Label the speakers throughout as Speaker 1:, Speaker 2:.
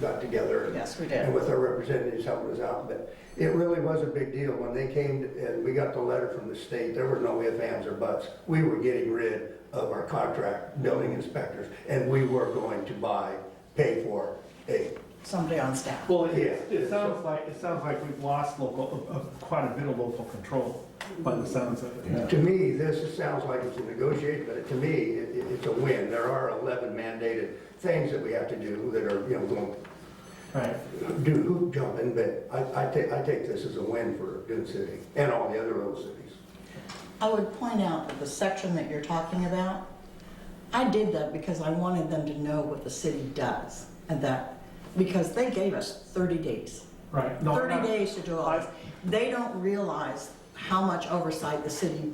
Speaker 1: got together. and-
Speaker 2: Yes, we
Speaker 1: And
Speaker 2: did.
Speaker 1: with our representatives helping us out, but it really was a big deal. When they came and we got the letter from the state, there were no ifs, ands, or buts. We were getting rid of our contract building inspectors, and we were going to buy, pay for a,
Speaker 2: Somebody on staff.
Speaker 3: Well, it,
Speaker 1: Yeah.
Speaker 3: it sounds like, it sounds like we've lost local, uh, uh, quite a bit of local control by the sounds of it.
Speaker 1: to me, this sounds like it's a negotiation, but to me, it, it- it's a win. There are 11 mandated things that we have to do that are, you know, going
Speaker 3: Right.
Speaker 1: do hoop jumping, but I, I take, I take this as a win for Dune City and all the other little cities.
Speaker 2: I would point out that the section that you're talking about, I did that because I wanted them to know what the city does and that, because they gave us 30 days.
Speaker 3: Right. No,
Speaker 2: 30
Speaker 3: not-
Speaker 2: days to do all this. They don't realize how much oversight the city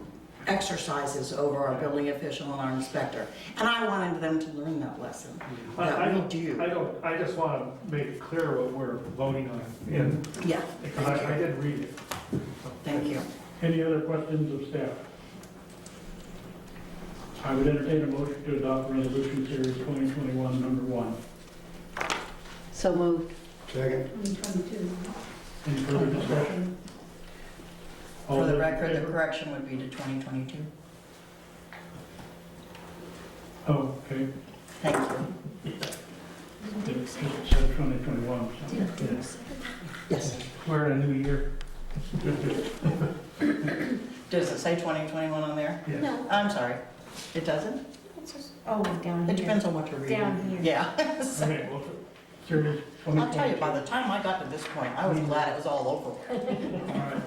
Speaker 2: exercises over our building official and our inspector. And I wanted them to learn that lesson,
Speaker 3: I- I
Speaker 2: that we
Speaker 3: don't- I
Speaker 2: do.
Speaker 3: don't, I just want to make it clear what we're voting on, and,
Speaker 2: Yeah,
Speaker 3: because I, I did read it.
Speaker 2: thank you.
Speaker 4: Any other questions of staff? I would entertain a motion to adopt resolution series 2021, number one.
Speaker 5: So moved.
Speaker 1: Second?
Speaker 4: Any further discussion? All
Speaker 2: For
Speaker 4: those
Speaker 2: the
Speaker 4: in
Speaker 2: record, the
Speaker 4: favor?
Speaker 2: correction would be to 2022.
Speaker 4: Oh, okay.
Speaker 2: Thank you.
Speaker 4: It says 2021. so-
Speaker 2: Yes.
Speaker 3: We're in a new year.
Speaker 2: Does it say 2021 on there?
Speaker 3: Yes.
Speaker 6: No,
Speaker 2: I'm sorry, it doesn't?
Speaker 6: it's just, oh, down
Speaker 2: It
Speaker 6: here.
Speaker 2: depends on what you're reading.
Speaker 6: Down here.
Speaker 2: Yeah. So,
Speaker 3: Okay, well,
Speaker 4: Series 2022.
Speaker 2: I'll tell you, by the time I got to this point, I was glad it was all over with.
Speaker 4: All right.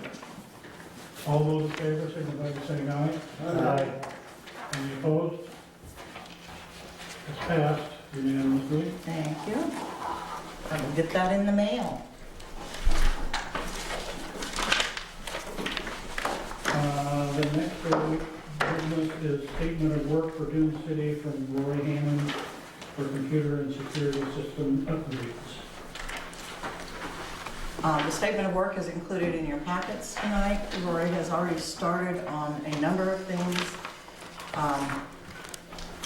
Speaker 4: All those in favor, signify by saying aye. Any opposed? It's passed unanimously.
Speaker 2: Thank you. I will get that in the mail.
Speaker 4: Uh, The next order of business is statement of work for Dune City from Roy Hammond for computer and security system upgrades.
Speaker 2: Uh, The statement of work is included in your packets tonight. Rory has already started on a number of things. Um,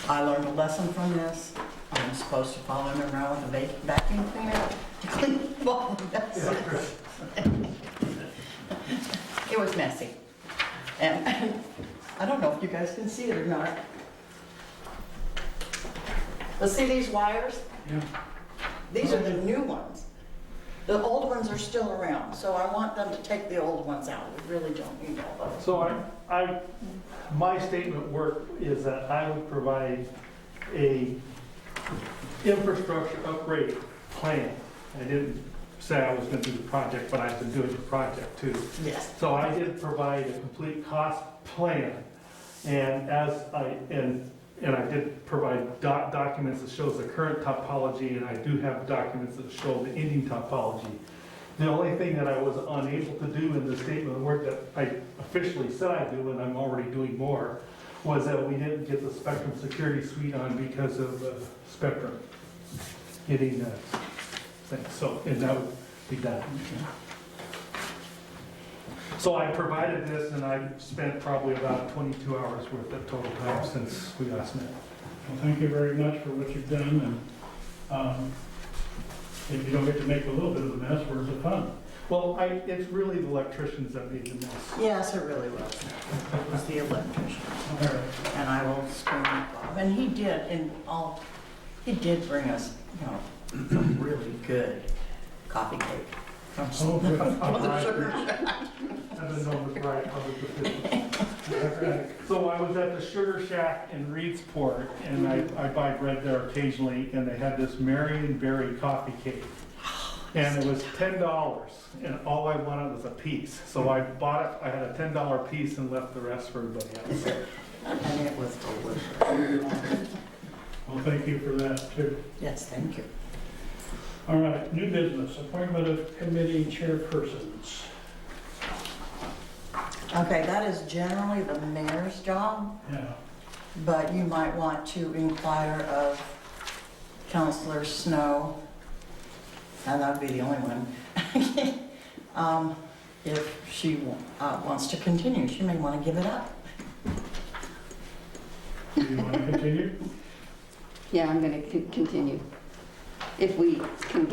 Speaker 2: I learned a lesson from this. I'm supposed to follow him around with a va- vacuum cleaner to clean up all the messes. It was messy. And I don't know if you guys can see it or not. But see these wires?
Speaker 4: Yeah.
Speaker 2: These are the new ones. The old ones are still around, so I want them to take the old ones out. We really don't need all those.
Speaker 3: So I, I, my statement work is that I would provide a infrastructure upgrade plan. I didn't say I was gonna do the project, but I've been doing the project too.
Speaker 2: Yes.
Speaker 3: So I did provide a complete cost plan, and as I, and, and I did provide doc- documents that shows the current topology, and I do have documents that show the ending topology. The only thing that I was unable to do in the statement of work that I officially said I do, and I'm already doing more, was that we didn't get the Spectrum Security Suite on because of uh, Spectrum getting the thing, so, and that would be done. So I provided this and I spent probably about 22 hours worth of total time since we last met.
Speaker 4: Well, thank you very much for what you've done, and um, if you don't get to make a little bit of a mess, where's the fun?
Speaker 3: Well, I, it's really the electricians that made the mess.
Speaker 2: Yes, it really was. It was the electrician.
Speaker 4: All right.
Speaker 2: And I will scream at Bob. And he did, and all, he did bring us, you know, some really good coffee cake. from s-
Speaker 4: Oh, good.
Speaker 2: from the sugar shack.
Speaker 3: I didn't know it was right, I was just- So I was at the Sugar Shack in Reedsport and I, I buy bread there occasionally and they had this Marion Berry coffee cake. And it was ten dollars and all I wanted was a piece. So I bought it, I had a ten dollar piece and left the rest for everybody else.
Speaker 2: And it was delicious.
Speaker 4: Well, thank you for that, too.
Speaker 2: Yes, thank you.
Speaker 4: All right, new business, appointment of committee chairpersons.
Speaker 2: Okay, that is generally the mayor's job.
Speaker 4: Yeah.
Speaker 2: but you might want to inquire of Counselor Snow, and that'd be the only one, Um, if she wa- uh, wants to continue. She may want to give it up.
Speaker 4: Do you want to continue?
Speaker 5: Yeah, I'm going to continue. If we can get